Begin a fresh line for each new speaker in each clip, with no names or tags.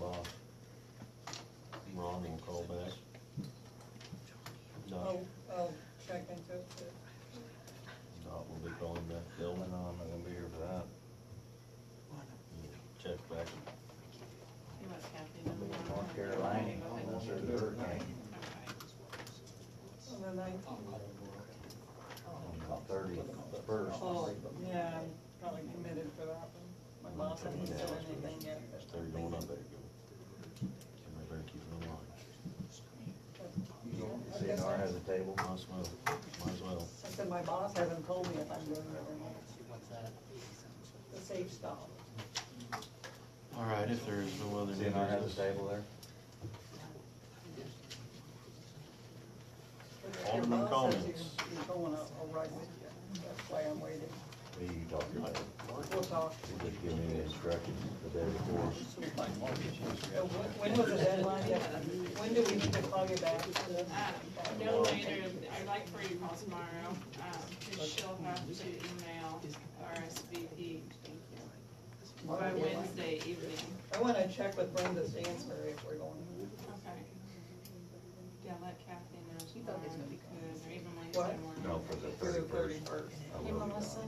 Oh,
Oh.
building, I'm not gonna be here for that. Check back,
See what's happening
I'll be
in
in
the
North Carolina, unless there's a hurricane,
Okay. On the nineteenth,
on the thirty-first.
oh, yeah, I'm probably committed for that one. My boss hasn't said anything yet.
That's they're going up there. And they better keep it alive. CNR has a table, might as well, might as well.
I said, my boss hasn't told me if I'm doing it or not. The safe stop.
All right, if there is no other new
CNR has a
business.
table there?
But your
Alderman
boss says
comments.
you're- You're going, I'll I'll ride with you. That's why I'm waiting.
Who you talking about?
We'll talk.
You just give me the instructions the day before.
So wh- When was the deadline? When do we need to call you back?
Um, No later, I'd like for you to call tomorrow, um, because she'll have to email RSVP by Wednesday evening.
I wanna check with Brenda Stansbury if we're going.
Okay. Yeah, let Kathy know tomorrow, because, or even
What?
Wednesday morning.
No, for the
through the
thirty-first. I
Hey
will.
Melissa,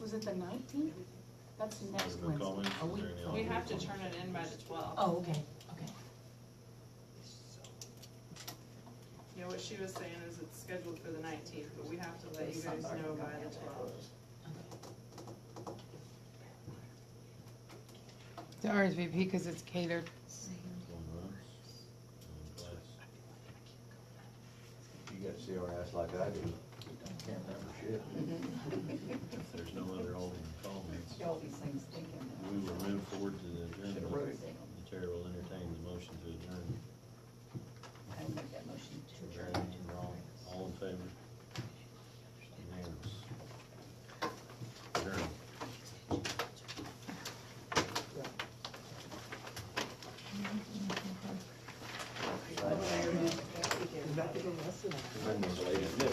was it the nineteenth? That's
There's
next
no
Wednesday.
comments,
Are
is
we-
there any
We
other
have to
business?
turn it in by the twelfth.
Oh, okay, okay.
You know, what she was saying is it's scheduled for the nineteenth, but we have to let you guys know by the twelfth.
The RSVP because it's catered.
Going once, going
You got CRS like I do. Can't remember shit.
twice. If there's no other holding comments,
All these things taken.
we will move forward to the agenda.
Should've wrote it down.
The chair will entertain the motion to adjourn.
I will make that motion
Is there anything wrong? All in favor? Unanimous. Adjourn.
Been this late, isn't it?